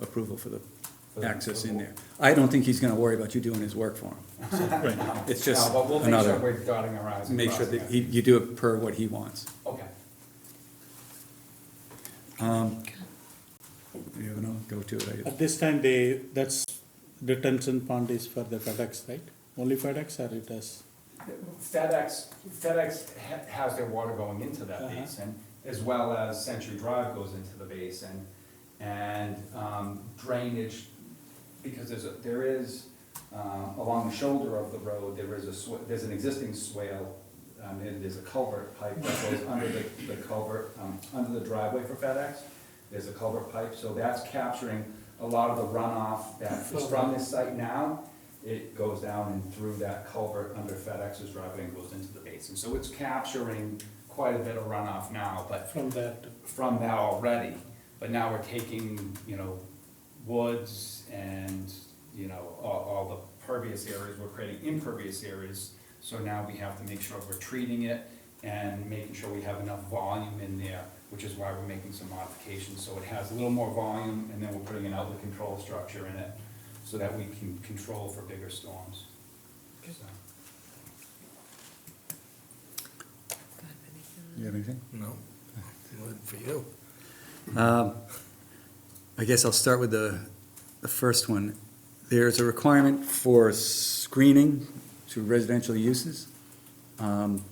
approval for the access in there. I don't think he's gonna worry about you doing his work for him. Right. It's just No, but we'll make sure another, we're dotting our i's and make sure crossing that our- he- you do it per what he wants. Okay. You know, go to it. At this time, they, that's detention pond is for the FedEx, right? Only FedEx or it has? FedEx, FedEx ha- has their water going into that Uh-huh. basin, as well as Century Drive goes into the basin. And um, drainage, because there's, a there is, um, along the shoulder of the road, there is a, sw- there's an existing swale. um, And there's a culvert pipe that goes under the the culvert, um, under the driveway for FedEx. There's a culvert pipe, so that's capturing a lot of the runoff that is from this site now. It goes down and through that culvert under FedEx's driveway and goes into the basin. So it's capturing quite a bit of runoff now, but From that. from that already, but now we're taking, you know, woods and, you know, all, all the pervious areas, we're creating impervious areas. So now we have to make sure we're treating it and making sure we have enough volume in there, which is why we're making some modifications. So it has a little more volume and then we're putting an outlet control structure in it so that we can control for bigger storms. So. You have anything? No, good for you. Um, I guess I'll start with the, the first one. There's a requirement for screening to residential uses um,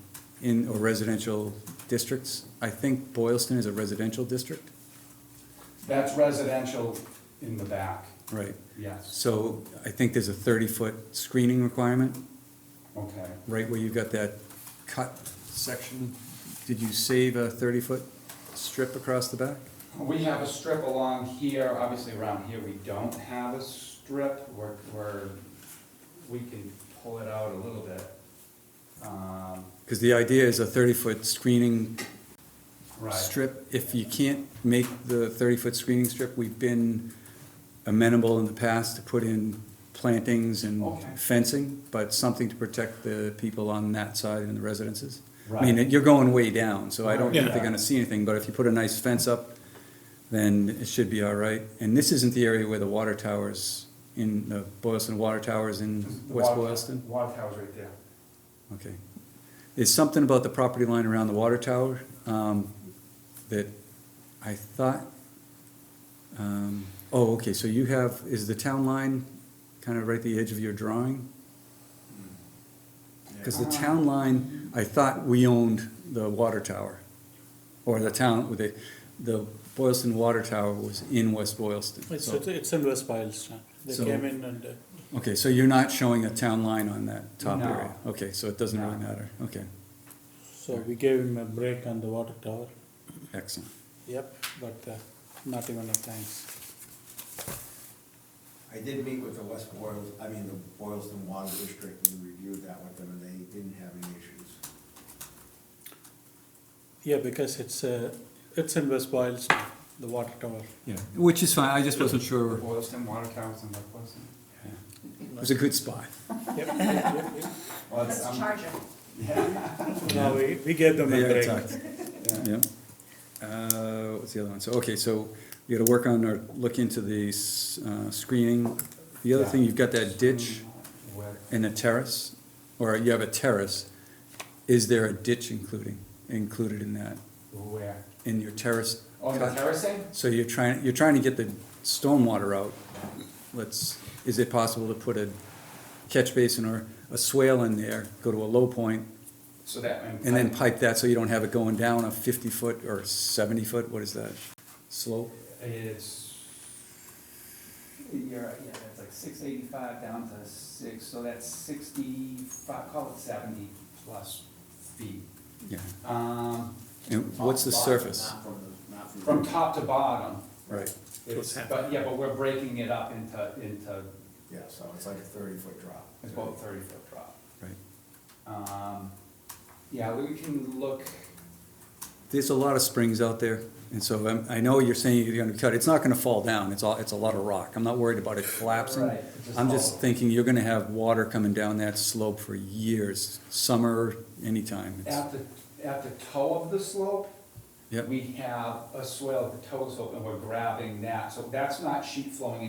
in, or residential districts. I think Boylston is a residential district, That's residential in the back, right? yes, So I think there's a thirty-foot screening requirement, okay. right where you've got that cut section. Did you save a thirty-foot strip across the back? We have a strip along here, obviously around here, we don't have a strip, we're, we're, we can pull it out a little bit. Um, Because the idea is a thirty-foot screening Right, strip, if you can't make the thirty-foot screening strip, we've been amenable in the past to put in plantings and Okay. fencing, but something to protect the people on that side and the residences. I Right. mean, you're going way down, so I don't think they're Yeah. gonna see anything, but if you put a nice fence up, then it should be all right. And this isn't the area where the water towers in, the Boylston Water Towers in The West water- Boylston? Water tower's right there. Okay. There's something about the property line around the water tower, um, that I thought, um, oh, okay, so you have, is the town line kind of right at the edge of your drawing? Mm. Cause the town line, I thought we owned the water tower, or the town, the, the Boylston Water Tower was in West Boylston. It's, so- it's in West Boylston. They So- came in and, uh, Okay, so you're not showing a town line on that top No. area? Okay, so it doesn't really No. matter, okay, so we gave him a break on the water tower. excellent. Yep. But uh, not even a thanks. I did meet with the West Boyles, I mean, the Boylston Water District, and reviewed that with them, and they didn't have any issues. Yeah, because it's, uh, it's in West Boylston, the water tower. Yeah, which is fine, I just wasn't sure. Boylston, water towers in Lake Boylston. It was a good spot. Yep, yep, yep, yep. Well, it's, That's a um, charger. No, we, we gave them a Yeah, break. exactly. Yeah. Uh, what's the other one? So, okay, so you gotta work on or look into the, s- uh, screening. The other thing, you've got that ditch where- and a terrace, or you have a terrace. Is there a ditch including, included in that, Where? in your terrace? Oh, the cut? terracing? So you're trying, you're trying to get the stormwater out. Let's, is it possible to put a catch basin or a swale in there, go to a low point, So that. And then pipe that so you don't have it going down a fifty foot or seventy foot, what is that, slope? It's, you're, yeah, that's like six eighty-five down to six, so that's sixty-five, call it seventy plus feet. Yeah, Um, and what's the Bottom, surface? Not from the, not from. the- from top to bottom, Right, it's, but, yeah, but we're breaking it up into, into, Yeah, so it's like a thirty-foot drop. it's about thirty foot drop. right. Um, yeah, we can look, There's a lot of springs out there, and so I'm, I know you're saying you're gonna cut, it's not gonna fall down, it's all, it's a lot of rock, I'm not worried about it collapsing. Right, it just I'm falls. just thinking you're gonna have water coming down that slope for years, summer, anytime, it's, at the, at the toe of the slope, Yep. We have a swale at the toe slope and we're grabbing that, so that's not sheet flowing